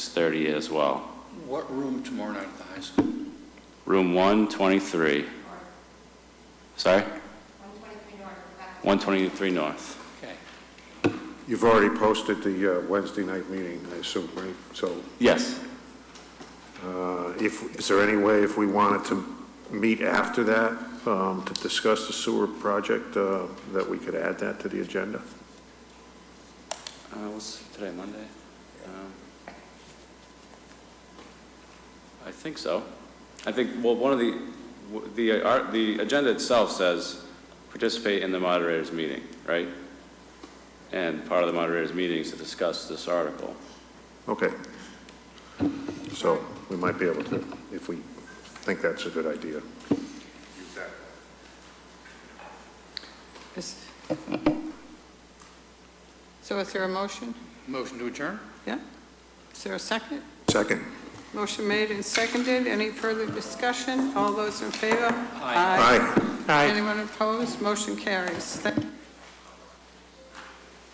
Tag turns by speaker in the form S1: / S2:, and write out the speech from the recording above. S1: 6:30 as well.
S2: What room tomorrow night at the high school?
S1: Room 123. Sorry? 123 North.
S2: Okay.
S3: You've already posted the uh, Wednesday night meeting, I assume, right? So
S1: Yes.
S3: uh, if, is there any way, if we wanted to meet after that um, to discuss the sewer project, uh, that we could add that to the agenda?
S1: Uh, What's today, Monday? Um, I think so. I think, well, one of the, w- the, uh, our- the agenda itself says, participate in the moderator's meeting, right? And part of the moderator's meeting is to discuss this article.
S3: Okay. So we might be able to, if we think that's a good idea.
S4: Is- So is there a motion?
S2: Motion to adjourn?
S4: Yeah? Is there a second?
S3: Second.
S4: Motion made and seconded. Any further discussion? All those in favor?
S2: Aye.
S3: Aye.
S4: Anyone opposed? Motion carries. Thank-